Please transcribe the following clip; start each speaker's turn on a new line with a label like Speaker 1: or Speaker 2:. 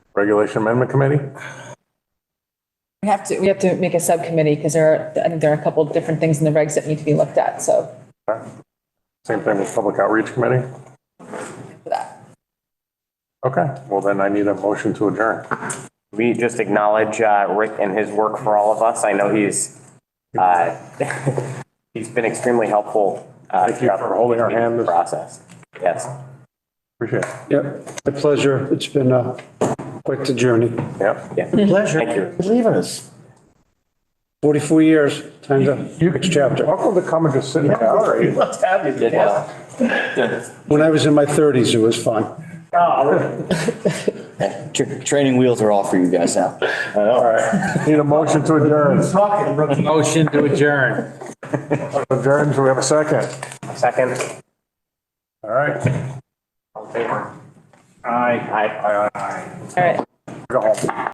Speaker 1: Regulation Amendment Committee?
Speaker 2: We have to, we have to make a subcommittee because there are, I think there are a couple of different things in the regs that need to be looked at, so
Speaker 1: Okay. Same thing with Public Outreach Committee?
Speaker 2: for that.
Speaker 1: Okay, well then I need a motion to adjourn.
Speaker 3: We just acknowledge uh, Rick and his work for all of us. I know he's, uh, he's been extremely helpful. uh,
Speaker 1: Thank you
Speaker 3: throughout
Speaker 1: for
Speaker 3: the
Speaker 1: holding our hand this-
Speaker 3: Process, yes.
Speaker 1: Appreciate it.
Speaker 4: Yep, my pleasure. It's been a quick journey.
Speaker 1: Yep.
Speaker 3: Yeah. Thank
Speaker 4: Pleasure.
Speaker 3: you.
Speaker 4: Leaving us. 44 years, time to, next chapter.
Speaker 1: Welcome to come and just sit in the gallery.
Speaker 5: Let's have you.
Speaker 3: Good help. Good.
Speaker 4: When I was in my 30s, it was fun.
Speaker 6: Tr- Training wheels are off for you guys now.
Speaker 1: All right, need a motion to adjourn.
Speaker 5: Talking rookie.
Speaker 7: Motion to adjourn.
Speaker 1: Adjourn, do we have a second?
Speaker 3: Second.
Speaker 1: All right,
Speaker 3: All in favor?
Speaker 5: Aye.
Speaker 2: All right.
Speaker 1: go home.